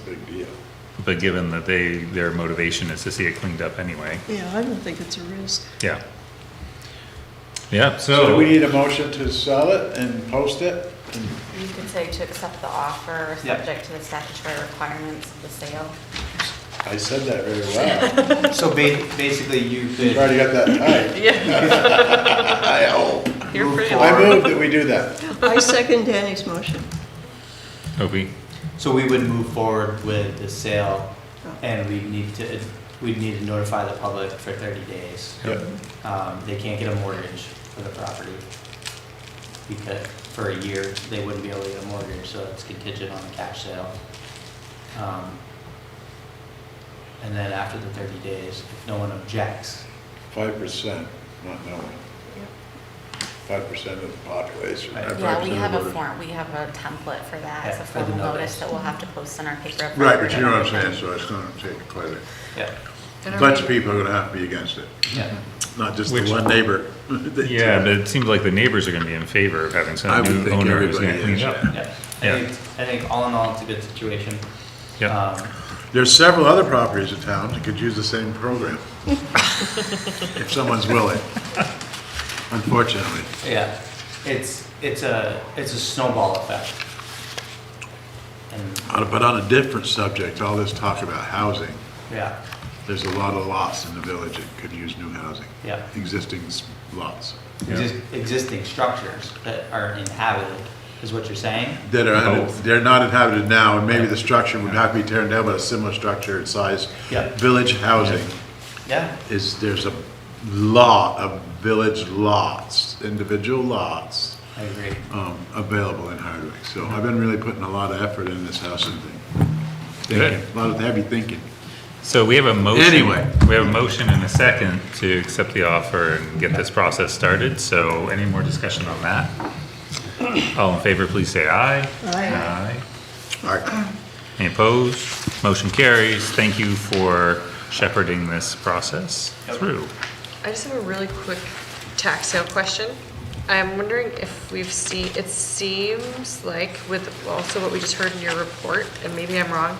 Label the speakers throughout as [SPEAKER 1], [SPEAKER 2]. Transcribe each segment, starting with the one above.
[SPEAKER 1] big deal.
[SPEAKER 2] But given that they, their motivation is to see it cleaned up anyway,
[SPEAKER 3] Yeah, I don't think it's a risk.
[SPEAKER 2] yeah. Yeah,
[SPEAKER 1] So do we
[SPEAKER 2] so,
[SPEAKER 1] need a motion to sell it and post it?
[SPEAKER 4] You could say to accept the offer,
[SPEAKER 5] Yeah.
[SPEAKER 4] subject to the statutory requirements of the sale.
[SPEAKER 1] I said that very well.
[SPEAKER 5] So ba- basically, you
[SPEAKER 1] You've
[SPEAKER 5] could
[SPEAKER 1] already got that tied.
[SPEAKER 3] Yeah,
[SPEAKER 1] I hope.
[SPEAKER 3] you're pretty.
[SPEAKER 1] I move that we do that.
[SPEAKER 3] I second Danny's motion.
[SPEAKER 2] Opie,
[SPEAKER 5] So we would move forward with the sale, and we'd need to, we'd need to notify the public for 30 days.
[SPEAKER 1] Yep.
[SPEAKER 5] Um, They can't get a mortgage for the property, because for a year, they wouldn't be able to get a mortgage, so it's contingent on the cash sale. Um, And then after the 30 days, if no one objects,
[SPEAKER 1] Five percent, not knowing. Five percent of the population.
[SPEAKER 5] Right.
[SPEAKER 4] Yeah, we have a form, we have a template for that, it's
[SPEAKER 5] Yeah,
[SPEAKER 4] a
[SPEAKER 5] for the
[SPEAKER 4] formal notice
[SPEAKER 5] notice.
[SPEAKER 4] that we'll have to post in our paper.
[SPEAKER 6] Right, but you know what I'm saying, so it's gonna take quite a,
[SPEAKER 5] yeah,
[SPEAKER 6] a bunch of people are gonna have to be against it,
[SPEAKER 5] yeah.
[SPEAKER 6] not just the
[SPEAKER 2] Which-
[SPEAKER 6] one neighbor. that-
[SPEAKER 2] yeah, but it seems like the neighbors are gonna be in favor of having
[SPEAKER 6] I
[SPEAKER 2] some
[SPEAKER 6] would
[SPEAKER 2] new
[SPEAKER 6] think
[SPEAKER 2] owner who's gonna
[SPEAKER 6] everybody
[SPEAKER 2] clean
[SPEAKER 6] is,
[SPEAKER 2] it up.
[SPEAKER 6] yeah.
[SPEAKER 5] Yeah, I
[SPEAKER 2] Yeah.
[SPEAKER 5] think, I think all in all, it's a good situation.
[SPEAKER 2] Yeah,
[SPEAKER 5] Um,
[SPEAKER 6] There's several other properties in town that could use the same program, if someone's willing, unfortunately.
[SPEAKER 5] Yeah, it's, it's a, it's a snowball effect. And,
[SPEAKER 6] Uh, But on a different subject, all this talk about housing,
[SPEAKER 5] yeah,
[SPEAKER 6] there's a lot of lots in the village that could use new housing.
[SPEAKER 5] Yeah.
[SPEAKER 6] Existing s- lots
[SPEAKER 2] Yeah.
[SPEAKER 5] Exis- existing structers that are inhabited, is what you're saying?
[SPEAKER 6] that are,
[SPEAKER 2] Both.
[SPEAKER 6] uninhabited- they're not inhabited now, and maybe the structure would have to be teared down, but a similar structure and size.
[SPEAKER 5] Yeah.
[SPEAKER 6] Village housing.
[SPEAKER 5] Yeah,
[SPEAKER 6] is there's a lot of village lots, individual lots,
[SPEAKER 5] I agree.
[SPEAKER 6] um, available in Hardwick. So I've been really putting a lot of effort in this housing thing.
[SPEAKER 2] Good.
[SPEAKER 6] Thinking, A lot of heavy thinking.
[SPEAKER 2] so we have a motion.
[SPEAKER 6] Anyway.
[SPEAKER 2] We have a motion and a second to accept the offer and get this process started, so any more discussion on that? All in favor, please say aye.
[SPEAKER 3] Aye.
[SPEAKER 2] Aye.
[SPEAKER 6] All right,
[SPEAKER 2] Any opposed? Motion carries. Thank you for shepherding this process through.
[SPEAKER 7] I just have a really quick tax sale question. I'm wondering if we've seen, it seems like with also what we just heard in your report, and maybe I'm wrong,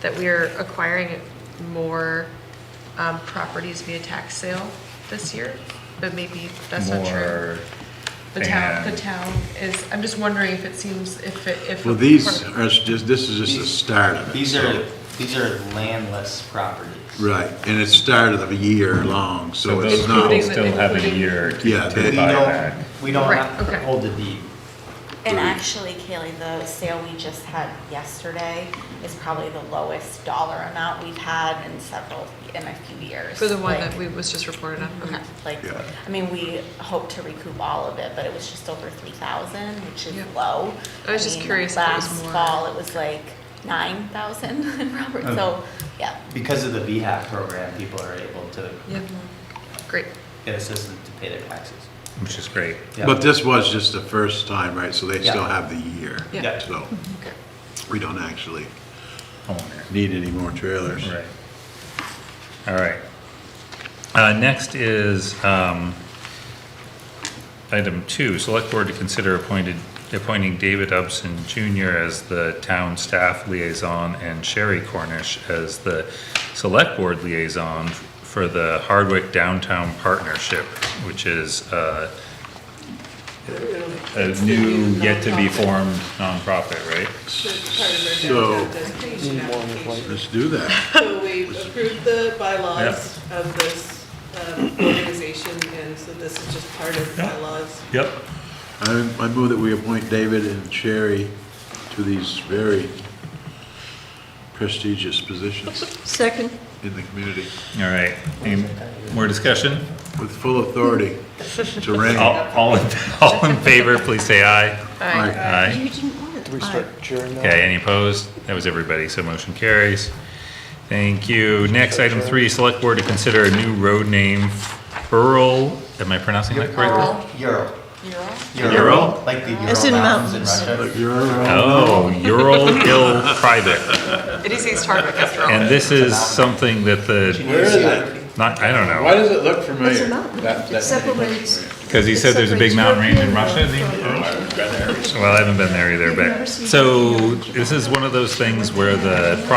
[SPEAKER 7] that we are acquiring more um, properties via tax sale this year, but maybe that's not true.
[SPEAKER 2] More
[SPEAKER 7] The town, the
[SPEAKER 2] and-
[SPEAKER 7] town is, I'm just wondering if it seems, if it, if.
[SPEAKER 6] Well, these are just, this is just the start of it.
[SPEAKER 5] These are, these are landless properties.
[SPEAKER 6] Right, and it's started of a year long,
[SPEAKER 2] So
[SPEAKER 6] so
[SPEAKER 2] those
[SPEAKER 6] it's not,
[SPEAKER 2] people
[SPEAKER 7] Including the-
[SPEAKER 2] still have a
[SPEAKER 7] including-
[SPEAKER 2] year to
[SPEAKER 6] Yeah,
[SPEAKER 2] to
[SPEAKER 6] they-
[SPEAKER 5] We
[SPEAKER 2] buy
[SPEAKER 5] don't-
[SPEAKER 2] back.
[SPEAKER 5] We don't
[SPEAKER 7] Right,
[SPEAKER 5] have to
[SPEAKER 7] okay.
[SPEAKER 5] hold the deed.
[SPEAKER 4] And actually, Kaylee, the sale we just had yesterday is probably the lowest dollar amount we've had in several, in a few years.
[SPEAKER 7] For the one
[SPEAKER 4] Like-
[SPEAKER 7] that we, was just reported on, okay.
[SPEAKER 4] Like,
[SPEAKER 6] Yeah.
[SPEAKER 4] I mean, we hope to recoup all of it, but it was just over three thousand, which is
[SPEAKER 7] Yeah.
[SPEAKER 4] low.
[SPEAKER 7] I was just
[SPEAKER 4] mean,
[SPEAKER 7] curious if it was
[SPEAKER 4] Last
[SPEAKER 7] more.
[SPEAKER 4] fall, it was like nine thousand in Robert, so, yeah.
[SPEAKER 5] Because of the VHAP program, people are able to
[SPEAKER 7] Yep, great.
[SPEAKER 5] get assistance to pay their taxes.
[SPEAKER 2] Which is great.
[SPEAKER 5] Yeah.
[SPEAKER 6] but this was just the first time, right? So they
[SPEAKER 5] Yeah.
[SPEAKER 6] still have the year.
[SPEAKER 7] Yeah.
[SPEAKER 5] Yeah.
[SPEAKER 6] So
[SPEAKER 7] Okay.
[SPEAKER 6] we don't actually
[SPEAKER 2] Owner.
[SPEAKER 6] need any more trailers.
[SPEAKER 2] Right. All right. Uh, next is, um, item two, select board to consider appointed, appointing David Upson Jr. as the town staff liaison and Sherry Cornish as the select board liaison for the Hardwick Downtown Partnership, which is, uh, a new, yet to be formed nonprofit, right?
[SPEAKER 6] So let's do that.
[SPEAKER 8] So we approved the bylaws of this um, organization, and so this is just part of the
[SPEAKER 2] Yeah.
[SPEAKER 8] bylaws.
[SPEAKER 2] Yep.
[SPEAKER 6] I, I move that we appoint David and Sherry to these very prestigious positions
[SPEAKER 3] Second,
[SPEAKER 6] in the community
[SPEAKER 2] All right. Any more discussion?
[SPEAKER 6] with full authority to reign.
[SPEAKER 2] All, all in, all in favor, please say aye.
[SPEAKER 7] Aye.
[SPEAKER 2] Aye.
[SPEAKER 3] you didn't want it.
[SPEAKER 2] Okay, any opposed? That was everybody, so motion carries. Thank you. Next, item three, select board to consider a new road name, Earl, am I pronouncing that correctly?
[SPEAKER 5] Euro.
[SPEAKER 4] Euro?
[SPEAKER 2] Ural?
[SPEAKER 5] Like the
[SPEAKER 3] As in
[SPEAKER 5] Ural Mountains in Russia.
[SPEAKER 6] You're all-
[SPEAKER 2] Oh, Ural Hill Private.
[SPEAKER 7] It is East Hardwick after all.
[SPEAKER 2] And this is something that the,
[SPEAKER 1] Where is it?
[SPEAKER 2] not, I don't
[SPEAKER 1] Why
[SPEAKER 2] know,
[SPEAKER 1] does it look familiar?
[SPEAKER 3] It's a mountain.
[SPEAKER 1] That- that
[SPEAKER 3] It separates.
[SPEAKER 2] because he said there's a big mountain range in Russia, didn't he? Well, I haven't been there either, but, so this is one of those things where the